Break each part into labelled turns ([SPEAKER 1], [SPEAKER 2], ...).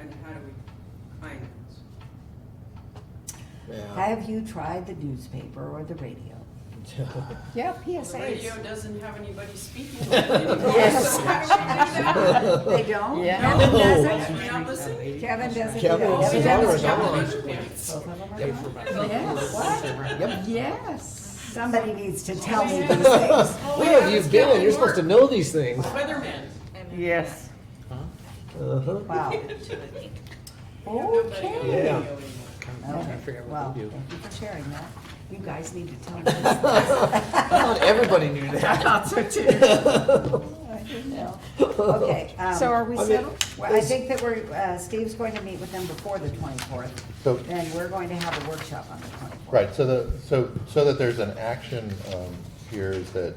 [SPEAKER 1] and how do we finance?
[SPEAKER 2] Yeah.
[SPEAKER 3] Have you tried the newspaper or the radio?
[SPEAKER 1] The
[SPEAKER 4] Yeah,
[SPEAKER 1] radio
[SPEAKER 4] PSAs.
[SPEAKER 1] doesn't have anybody speaking on it anymore,
[SPEAKER 3] Yes.
[SPEAKER 1] so how do we do that?
[SPEAKER 3] They don't?
[SPEAKER 4] Yeah.
[SPEAKER 3] Kevin
[SPEAKER 2] No.
[SPEAKER 3] doesn't?
[SPEAKER 1] We're not listening?
[SPEAKER 4] Kevin doesn't do
[SPEAKER 2] Kevin
[SPEAKER 4] that.
[SPEAKER 2] doesn't
[SPEAKER 1] That
[SPEAKER 2] do
[SPEAKER 1] was
[SPEAKER 2] it.
[SPEAKER 1] Kevin Underpants.
[SPEAKER 4] Yes, what?
[SPEAKER 2] Yep.
[SPEAKER 4] Yes,
[SPEAKER 3] Somebody needs to tell me these
[SPEAKER 2] Where
[SPEAKER 3] things.
[SPEAKER 2] have you been? You're supposed to know these things.
[SPEAKER 1] Weatherman.
[SPEAKER 4] yes.
[SPEAKER 2] Uh-huh.
[SPEAKER 3] Wow.
[SPEAKER 1] Nobody on the radio
[SPEAKER 2] Yeah.
[SPEAKER 1] anymore.
[SPEAKER 3] Okay,
[SPEAKER 2] figure out what
[SPEAKER 3] well,
[SPEAKER 2] to do.
[SPEAKER 3] thank you for sharing that. You guys need to tell me. these things.
[SPEAKER 2] I thought everybody knew that.
[SPEAKER 3] Okay. um,
[SPEAKER 4] So are we
[SPEAKER 2] I mean-
[SPEAKER 4] settled?
[SPEAKER 3] Well, I think that we're, uh, Steve's going to meet with them before the twenty-fourth,
[SPEAKER 5] So-
[SPEAKER 3] and we're going to have a workshop on the twenty-fourth.
[SPEAKER 5] Right, so the, so, so that there's an action um, here is that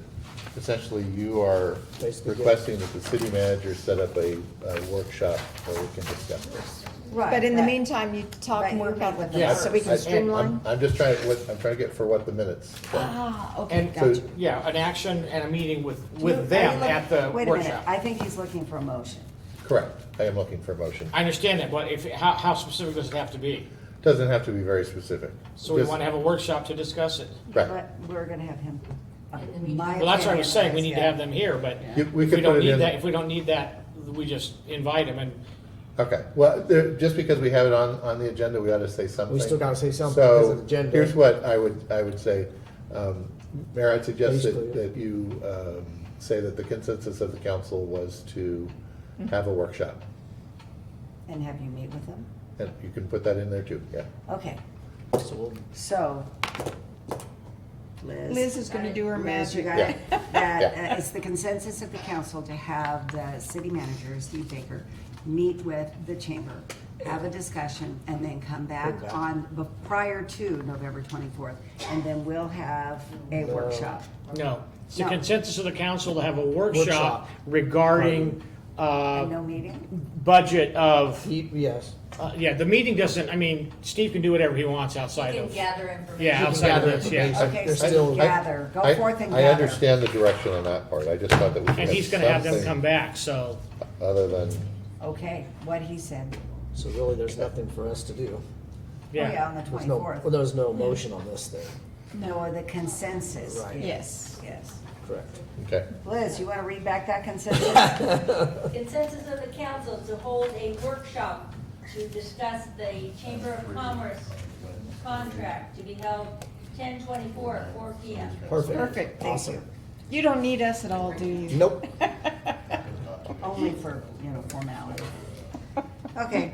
[SPEAKER 5] essentially you are
[SPEAKER 2] Basically, yeah.
[SPEAKER 5] requesting that the city manager set up a a workshop where we can discuss this.
[SPEAKER 3] Right.
[SPEAKER 4] But in the
[SPEAKER 3] that-
[SPEAKER 4] meantime, you talk
[SPEAKER 3] Right,
[SPEAKER 4] and work
[SPEAKER 3] you
[SPEAKER 4] out
[SPEAKER 3] meet
[SPEAKER 4] with
[SPEAKER 3] with
[SPEAKER 4] them,
[SPEAKER 2] Yeah.
[SPEAKER 4] so we
[SPEAKER 5] I-
[SPEAKER 4] can
[SPEAKER 5] I'm-
[SPEAKER 4] streamline.
[SPEAKER 5] I'm just trying, what, I'm trying to get for what the minutes. say.
[SPEAKER 4] Ah, okay,
[SPEAKER 6] And,
[SPEAKER 5] So-
[SPEAKER 4] gotcha.
[SPEAKER 6] yeah, an action and a meeting with,
[SPEAKER 3] Are Uh, you
[SPEAKER 6] with them
[SPEAKER 3] look-
[SPEAKER 6] at the
[SPEAKER 3] Wait a minute,
[SPEAKER 6] workshop.
[SPEAKER 3] I think he's looking for a motion.
[SPEAKER 5] Correct, I am looking for a motion.
[SPEAKER 6] I understand that, but if, how, how specific does it have to be?
[SPEAKER 5] Doesn't have to be very specific.
[SPEAKER 6] So we
[SPEAKER 5] Just-
[SPEAKER 6] want to have a workshop to discuss it.
[SPEAKER 5] Right,
[SPEAKER 3] But we're gonna have him. uh,
[SPEAKER 6] Well, that's what I was saying, we need to have them here, but
[SPEAKER 5] You-
[SPEAKER 6] if
[SPEAKER 5] we
[SPEAKER 6] we
[SPEAKER 5] could put
[SPEAKER 6] don't
[SPEAKER 5] it
[SPEAKER 6] need
[SPEAKER 5] in-
[SPEAKER 6] that, if we don't need that, we just invite them and,
[SPEAKER 5] okay, well, there, just because we have it on, on the agenda, we ought to say something.
[SPEAKER 2] We still gotta say something because of
[SPEAKER 5] So,
[SPEAKER 2] the gender.
[SPEAKER 5] here's what I would, I would say, um, Mayor, I'd suggest that,
[SPEAKER 2] Basically, yeah.
[SPEAKER 5] that you, um, say that the consensus of the council was to
[SPEAKER 3] Mm-hmm.
[SPEAKER 5] have a workshop.
[SPEAKER 3] And have you meet with them?
[SPEAKER 5] And you can put that in there too, yeah.
[SPEAKER 3] Okay,
[SPEAKER 2] So we'll-
[SPEAKER 3] so. Liz.
[SPEAKER 4] Liz is gonna do her
[SPEAKER 3] Liz, you
[SPEAKER 4] magic.
[SPEAKER 3] got it?
[SPEAKER 5] Yeah.
[SPEAKER 3] That,
[SPEAKER 5] Yeah.
[SPEAKER 3] uh, it's the consensus of the council to have the city manager, Steve Baker, meet with the chamber, have a discussion, and then come back
[SPEAKER 2] back.
[SPEAKER 3] on, be- prior to November twenty-fourth, and then we'll have a
[SPEAKER 2] No.
[SPEAKER 3] workshop.
[SPEAKER 6] no. It's the
[SPEAKER 3] No.
[SPEAKER 6] consensus of the council to have a
[SPEAKER 2] Workshop.
[SPEAKER 6] workshop regarding,
[SPEAKER 3] And
[SPEAKER 6] uh,
[SPEAKER 3] No meeting?
[SPEAKER 6] budget of,
[SPEAKER 2] He- Yes.
[SPEAKER 6] uh, yeah, the meeting doesn't, I mean, Steve can do whatever he wants
[SPEAKER 7] You
[SPEAKER 6] outside
[SPEAKER 7] can
[SPEAKER 6] of.
[SPEAKER 7] gather information.
[SPEAKER 6] Yeah, outside of
[SPEAKER 2] Gather
[SPEAKER 6] this, yeah.
[SPEAKER 2] information.
[SPEAKER 3] Okay,
[SPEAKER 2] There's
[SPEAKER 3] so
[SPEAKER 2] still-
[SPEAKER 3] gather, go
[SPEAKER 5] I-
[SPEAKER 3] forth and
[SPEAKER 5] I
[SPEAKER 3] gather.
[SPEAKER 5] understand the direction on that part, I just thought that we could
[SPEAKER 6] And he's gonna
[SPEAKER 5] have
[SPEAKER 6] have them come
[SPEAKER 5] something
[SPEAKER 6] back, so,
[SPEAKER 3] Oh,
[SPEAKER 5] other than,
[SPEAKER 3] Okay, what he said.
[SPEAKER 2] So really, there's nothing for us to do.
[SPEAKER 3] Oh, yeah,
[SPEAKER 6] yeah.
[SPEAKER 3] on the
[SPEAKER 2] There's no, well,
[SPEAKER 3] twenty-fourth.
[SPEAKER 2] there's no motion on this thing,
[SPEAKER 3] No, the consensus.
[SPEAKER 2] Right.
[SPEAKER 3] is-
[SPEAKER 4] Yes.
[SPEAKER 3] Yes.
[SPEAKER 2] correct?
[SPEAKER 5] okay.
[SPEAKER 3] Liz, you want to read back that consensus?
[SPEAKER 7] Consensus of the council to hold a workshop to discuss the Chamber of Commerce contract to be held ten twenty-four at four P M.
[SPEAKER 2] Perfect.
[SPEAKER 4] Perfect, thank you.
[SPEAKER 2] Awesome.
[SPEAKER 4] You don't need us at all, do you?
[SPEAKER 2] Nope.
[SPEAKER 3] Only for, you know, formality. Okay,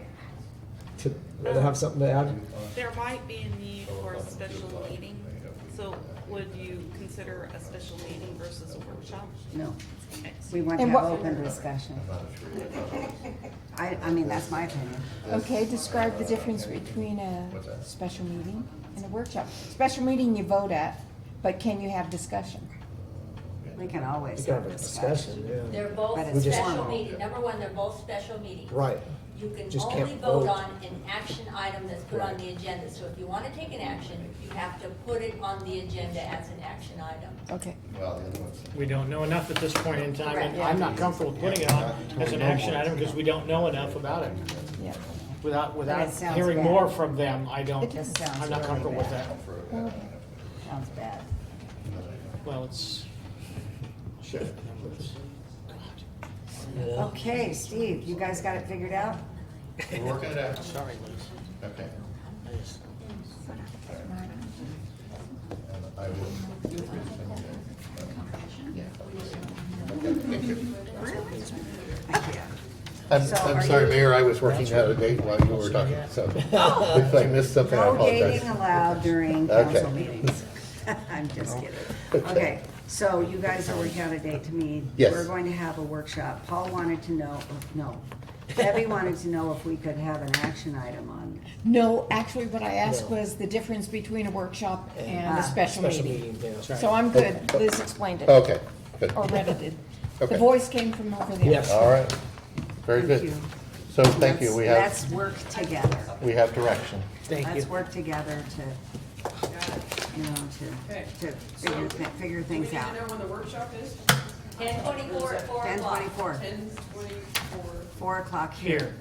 [SPEAKER 2] To rather have something to add?
[SPEAKER 8] There might be a need for a special meeting, so would you consider a special meeting versus a workshop?
[SPEAKER 3] no, we want to
[SPEAKER 4] And
[SPEAKER 3] have
[SPEAKER 4] what-
[SPEAKER 3] open discussion. I, I mean, that's my opinion.
[SPEAKER 4] Okay, describe the difference between a special meeting and a workshop. Special meeting you vote at, but can you have discussion?
[SPEAKER 3] We can always
[SPEAKER 2] You can
[SPEAKER 3] have
[SPEAKER 2] have a discussion, yeah.
[SPEAKER 7] They're
[SPEAKER 3] But
[SPEAKER 7] both
[SPEAKER 3] it's
[SPEAKER 7] special
[SPEAKER 3] formal.
[SPEAKER 7] meeting, number one, they're both special meetings.
[SPEAKER 2] Right.
[SPEAKER 7] You can
[SPEAKER 2] Just can't
[SPEAKER 7] only vote
[SPEAKER 2] vote.
[SPEAKER 7] on an action item that's put on the agenda, so if you wanna take an action, you have to put it on the agenda as an action item.
[SPEAKER 4] Okay.
[SPEAKER 6] We don't know enough at this point in time, and
[SPEAKER 4] Correct.
[SPEAKER 6] I'm not comfortable putting it on as an action item because we don't know enough about it.
[SPEAKER 4] Yeah.
[SPEAKER 6] Without,
[SPEAKER 3] But
[SPEAKER 6] without
[SPEAKER 3] it sounds
[SPEAKER 6] hearing
[SPEAKER 3] bad.
[SPEAKER 6] more from them, I don't,
[SPEAKER 3] It just sounds
[SPEAKER 6] I'm not
[SPEAKER 3] really
[SPEAKER 6] comfortable with
[SPEAKER 3] bad.
[SPEAKER 6] that.
[SPEAKER 3] Sounds bad.
[SPEAKER 6] Well, it's. Sure. numbers.
[SPEAKER 3] Okay, Steve, you guys got it figured out?
[SPEAKER 5] We're working it out,
[SPEAKER 6] Sorry, Liz.
[SPEAKER 5] okay.
[SPEAKER 6] I just-
[SPEAKER 5] And I will. I'm,
[SPEAKER 3] So
[SPEAKER 5] I'm
[SPEAKER 3] are
[SPEAKER 5] sorry,
[SPEAKER 3] you-
[SPEAKER 5] Mayor, I was working out a date while you were talking, so if I missed something, I
[SPEAKER 3] No
[SPEAKER 5] apologize.
[SPEAKER 3] dating allowed during council
[SPEAKER 5] Okay.
[SPEAKER 3] meetings. I'm just kidding. Okay, so you guys are working out a date to meet.
[SPEAKER 5] Yes.
[SPEAKER 3] We're going to have a workshop. Paul wanted to know, no, Debbie wanted to know if we could have an action item on
[SPEAKER 4] No, actually, what I asked
[SPEAKER 2] No.
[SPEAKER 4] was the difference between a workshop and
[SPEAKER 3] Ah.
[SPEAKER 4] a special
[SPEAKER 2] Special
[SPEAKER 4] meeting.
[SPEAKER 2] meeting, yeah.
[SPEAKER 4] So I'm good, Liz explained it, or
[SPEAKER 5] Okay, good,
[SPEAKER 3] Oh,
[SPEAKER 4] read it.
[SPEAKER 5] Okay.
[SPEAKER 4] The voice came from over there.
[SPEAKER 2] Yes.
[SPEAKER 5] all right, very
[SPEAKER 3] Thank
[SPEAKER 5] good.
[SPEAKER 3] you.
[SPEAKER 5] So thank you, we
[SPEAKER 3] Let's let's
[SPEAKER 5] have,
[SPEAKER 3] work together.
[SPEAKER 5] we have direction.
[SPEAKER 2] Thank you.
[SPEAKER 3] Let's work together to,
[SPEAKER 1] Got it.
[SPEAKER 3] you know,
[SPEAKER 1] Okay.
[SPEAKER 3] to, to figure, thi- figure
[SPEAKER 1] Do we need
[SPEAKER 3] things
[SPEAKER 1] to know
[SPEAKER 3] out.
[SPEAKER 1] when the workshop is?
[SPEAKER 7] Ten twenty-four at four
[SPEAKER 3] Ten
[SPEAKER 7] o'clock.
[SPEAKER 3] twenty-four,
[SPEAKER 1] Ten twenty-four.
[SPEAKER 3] four o'clock
[SPEAKER 6] Here.